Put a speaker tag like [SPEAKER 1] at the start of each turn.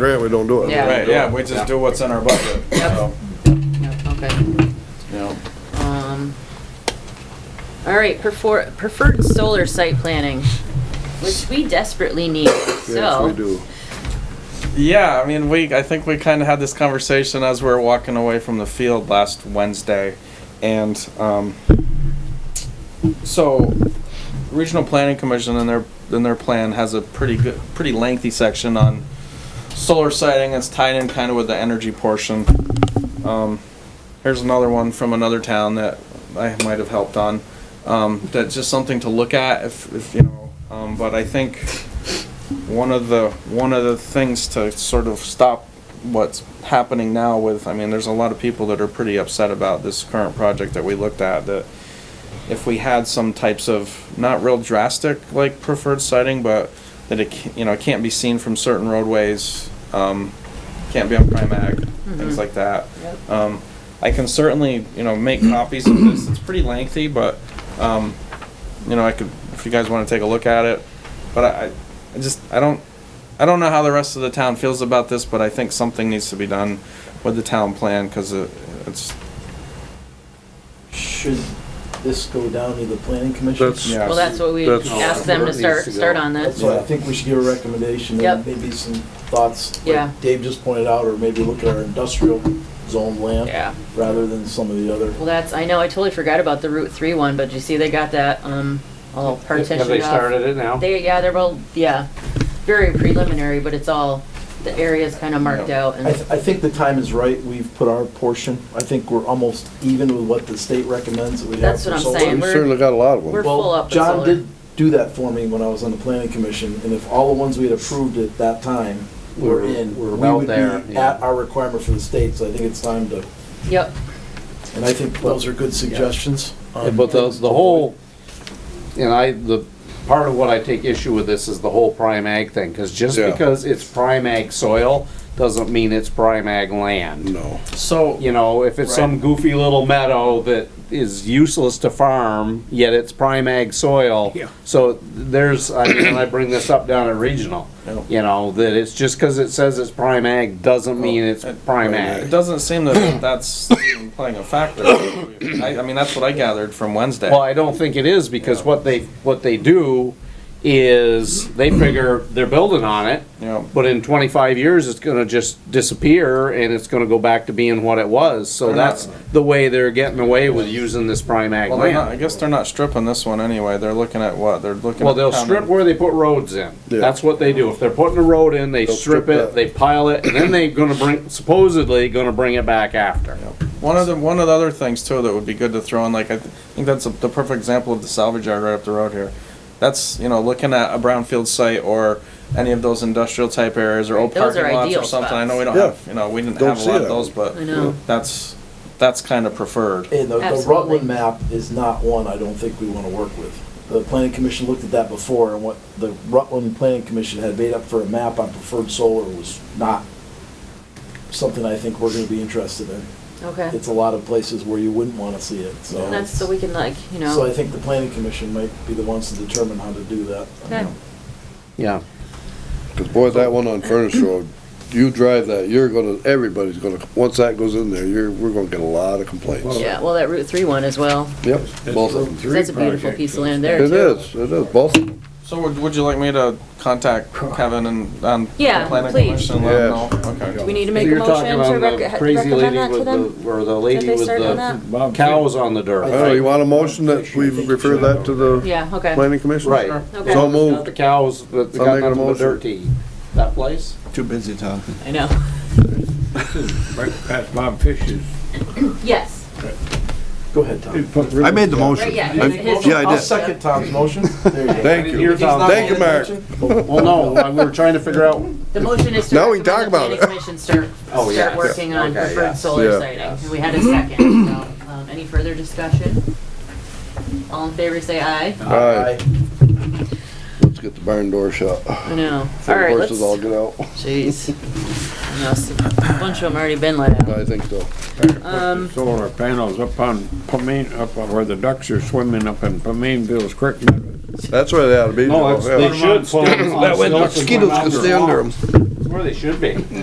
[SPEAKER 1] grant, we don't do it.
[SPEAKER 2] Yeah.
[SPEAKER 3] Right, yeah, we just do what's in our budget,
[SPEAKER 2] Yep.
[SPEAKER 3] so,
[SPEAKER 2] Yep, Okay.
[SPEAKER 3] you know.
[SPEAKER 2] Um, All right, prefer- preferred solar site planning, which we desperately need,
[SPEAKER 1] Yes, we
[SPEAKER 2] so.
[SPEAKER 1] do.
[SPEAKER 3] Yeah, I mean, we, I think we kind of had this conversation as we were walking away from the field last Wednesday. And um, so, Regional Planning Commission in their, in their plan has a pretty good, pretty lengthy section on solar siting. It's tied in kind of with the energy portion. Um, here's another one from another town that I might have helped on. Um, that's just something to look at if, if you know. Um, but I think one of the one of the things to sort of stop what's happening now with I mean there's a lot of people that are pretty upset about this current project that we looked at that if we had some types of not real drastic like preferred sighting but that it ca- you know it can't be seen from certain roadways um, can't be on prime ag things like that
[SPEAKER 2] Yep.
[SPEAKER 3] um, I can certainly you know make copies of this it's pretty lengthy but um, you know I could if you guys want to take a look at it but I, I- I just I don't I don't know how the rest of the town feels about this, but I think something needs to be done with the town plan because it, it's
[SPEAKER 4] Should this go down to the planning commission?
[SPEAKER 1] That's,
[SPEAKER 3] Yeah.
[SPEAKER 2] Well, that's what we
[SPEAKER 1] That's-
[SPEAKER 2] asked them to start, start on
[SPEAKER 4] That's
[SPEAKER 2] this.
[SPEAKER 4] why I think we should give a recommendation
[SPEAKER 2] Yep.
[SPEAKER 4] and maybe some thoughts. like
[SPEAKER 2] Yeah.
[SPEAKER 4] Dave just pointed out, or maybe look at our industrial zone land
[SPEAKER 2] Yeah,
[SPEAKER 4] rather than some of the other.
[SPEAKER 2] well, that's, I know, I totally forgot about the Route 3 one, but you see they got that, um, all partitioned off.
[SPEAKER 5] Have they started it now?
[SPEAKER 2] They, yeah, they're all, yeah, very preliminary, but it's all, the area's kind of marked
[SPEAKER 3] Yeah.
[SPEAKER 2] out
[SPEAKER 4] I,
[SPEAKER 2] and,
[SPEAKER 4] th- I think the time is right. We've put our portion. I think we're almost even with what the state recommends that we have
[SPEAKER 2] That's
[SPEAKER 4] for
[SPEAKER 2] what I'm
[SPEAKER 4] solar.
[SPEAKER 2] saying.
[SPEAKER 1] we certainly got a lot of
[SPEAKER 2] We're
[SPEAKER 1] them.
[SPEAKER 2] full up
[SPEAKER 4] Well,
[SPEAKER 2] with
[SPEAKER 4] John
[SPEAKER 2] solar.
[SPEAKER 4] did do that for me when I was on the planning commission, and if all the ones we had approved at that time were
[SPEAKER 5] Were-
[SPEAKER 4] in, we
[SPEAKER 5] were well
[SPEAKER 4] would be
[SPEAKER 5] there, yeah.
[SPEAKER 4] at our requirement for the state, so I think it's time to,
[SPEAKER 2] yep,
[SPEAKER 4] and I think those are good suggestions. Um,
[SPEAKER 5] Yeah, But the, the whole, and I, the, part of what I take issue with this is the whole prime ag thing, because just
[SPEAKER 1] Yeah.
[SPEAKER 5] because it's prime ag soil doesn't mean it's prime ag land.
[SPEAKER 1] No.
[SPEAKER 3] so
[SPEAKER 5] You know, if it's some goofy little meadow that is useless to farm, yet it's prime ag soil. So there's, I mean, and I bring this up down at regional, you know, that it's just because it says it's prime ag doesn't mean it's prime
[SPEAKER 3] it
[SPEAKER 5] ag.
[SPEAKER 3] doesn't seem that that's even playing a factor. I, I mean that's what I gathered from Wednesday.
[SPEAKER 5] Well, I don't think it is, because what they, what they do is, they figure they're building on it,
[SPEAKER 3] you know,
[SPEAKER 5] but in twenty-five years, it's gonna just disappear, and it's gonna go back to being what it was, so
[SPEAKER 3] They're not-
[SPEAKER 5] that's the way they're getting away with using this prime ag
[SPEAKER 3] well, they're not, I
[SPEAKER 5] land.
[SPEAKER 3] guess they're not stripping this one anyway. They're looking at what they're looking.
[SPEAKER 5] Well,
[SPEAKER 3] at
[SPEAKER 5] they'll
[SPEAKER 3] common-
[SPEAKER 5] strip where they put roads in,
[SPEAKER 1] Yeah.
[SPEAKER 5] that's what they do, if they're putting a road in, they
[SPEAKER 1] They'll
[SPEAKER 5] strip
[SPEAKER 1] strip
[SPEAKER 5] it,
[SPEAKER 1] that.
[SPEAKER 5] they pile it, and then they're gonna bring, supposedly gonna bring it back after.
[SPEAKER 3] One of the one of the other things too that would be good to throw in, like I th- think that's a, the perfect example of the salvage yard right up the road here. That's you know looking at a brownfield site or any of those industrial type areas or old
[SPEAKER 2] Those are
[SPEAKER 3] parking lots or
[SPEAKER 2] ideal
[SPEAKER 3] something. I know we don't
[SPEAKER 1] spots.
[SPEAKER 3] have you know we didn't
[SPEAKER 1] Don't
[SPEAKER 3] have a
[SPEAKER 1] see
[SPEAKER 3] lot of
[SPEAKER 1] that.
[SPEAKER 3] those, but
[SPEAKER 2] I know.
[SPEAKER 3] that's that's kind of preferred.
[SPEAKER 4] And the- the
[SPEAKER 2] Absolutely.
[SPEAKER 4] Rutland map is not one I don't think we want to work with. The planning commission looked at that before, and what the Rutland planning commission had made up for a map on preferred solar was not something I think we're going to be interested in.
[SPEAKER 2] okay.
[SPEAKER 4] It's a lot of places where you wouldn't want to see it, so.
[SPEAKER 2] And that's so we can like, you
[SPEAKER 4] So I
[SPEAKER 2] know,
[SPEAKER 4] think the planning commission might be the ones to determine how to do that.
[SPEAKER 2] Okay.
[SPEAKER 5] Yeah,
[SPEAKER 1] Cause boy, that one on Furnace Road, you drive that, you're gonna, everybody's gonna, once that goes in there, you're, we're gonna get a lot of complaints.
[SPEAKER 2] yeah, well, that Route 3 one as well,
[SPEAKER 1] Yep, both of them.
[SPEAKER 2] 'cause that's a beautiful piece of land there too.
[SPEAKER 1] It is, it is, both of them.
[SPEAKER 3] So would, would you like me to contact Kevin and um,
[SPEAKER 2] Yeah,
[SPEAKER 3] the planning
[SPEAKER 2] please.
[SPEAKER 3] commission and let
[SPEAKER 1] Yes.
[SPEAKER 3] him know? Okay.
[SPEAKER 2] We need to
[SPEAKER 5] So
[SPEAKER 2] make a
[SPEAKER 5] you're
[SPEAKER 2] motion
[SPEAKER 5] talking
[SPEAKER 2] to
[SPEAKER 5] on the
[SPEAKER 2] rec-
[SPEAKER 5] crazy
[SPEAKER 2] recommend
[SPEAKER 5] lady
[SPEAKER 2] that to
[SPEAKER 5] with
[SPEAKER 2] them?
[SPEAKER 5] the- Or the
[SPEAKER 2] That
[SPEAKER 5] lady
[SPEAKER 2] they
[SPEAKER 5] with
[SPEAKER 2] start on
[SPEAKER 5] the
[SPEAKER 2] that?
[SPEAKER 5] cows on the dirt.
[SPEAKER 1] Oh, you want a motion that we refer that to the
[SPEAKER 2] Yeah, okay.
[SPEAKER 1] planning commission?
[SPEAKER 5] Right.
[SPEAKER 2] Okay.
[SPEAKER 1] So
[SPEAKER 5] Not the
[SPEAKER 1] moved.
[SPEAKER 5] cows, but they
[SPEAKER 1] I'll
[SPEAKER 5] got
[SPEAKER 1] make a
[SPEAKER 5] nothing but
[SPEAKER 1] motion.
[SPEAKER 5] dirt to eat. That place?
[SPEAKER 6] Too busy talking.
[SPEAKER 2] I know.
[SPEAKER 7] Right past Bob Fisher's.
[SPEAKER 2] Yes.
[SPEAKER 4] Go ahead, Tom.
[SPEAKER 6] I made the
[SPEAKER 2] Right,
[SPEAKER 6] motion.
[SPEAKER 2] yeah,
[SPEAKER 6] I-
[SPEAKER 2] it is.
[SPEAKER 6] Yeah, I
[SPEAKER 4] I'll
[SPEAKER 6] did.
[SPEAKER 4] second Tom's motion. There you go.
[SPEAKER 1] Thank
[SPEAKER 5] I didn't hear
[SPEAKER 1] you.
[SPEAKER 5] Tom.
[SPEAKER 1] Thank you, Mark.
[SPEAKER 4] Oh.
[SPEAKER 5] Well, no, I- we were trying to figure out,
[SPEAKER 2] The motion is to
[SPEAKER 1] Now we can
[SPEAKER 2] recommend the
[SPEAKER 1] talk
[SPEAKER 2] planning
[SPEAKER 1] about
[SPEAKER 2] commission start,
[SPEAKER 5] Oh,
[SPEAKER 2] start
[SPEAKER 5] yes.
[SPEAKER 2] working on
[SPEAKER 5] Okay,
[SPEAKER 2] preferred
[SPEAKER 5] yes.
[SPEAKER 2] solar
[SPEAKER 1] Yeah.
[SPEAKER 2] siting. And we had a second, so, um, any further discussion? All in favor, say aye.
[SPEAKER 1] All right, let's get the barn door shut.
[SPEAKER 2] I know.
[SPEAKER 1] So
[SPEAKER 2] All
[SPEAKER 1] the
[SPEAKER 2] right, let's,
[SPEAKER 1] Horses all get out.
[SPEAKER 2] jeez. I know, s- A bunch of them already been let out.
[SPEAKER 1] I think so.
[SPEAKER 2] Um,
[SPEAKER 7] Solar panels up on Pamin, up on where the ducks are swimming up in Paminville's Creek.
[SPEAKER 1] That's where they ought to be.
[SPEAKER 5] no, it's-
[SPEAKER 1] Yeah.
[SPEAKER 5] Oh, they should.
[SPEAKER 7] That
[SPEAKER 1] That way the mosquitoes can stay under them.
[SPEAKER 5] where they should be.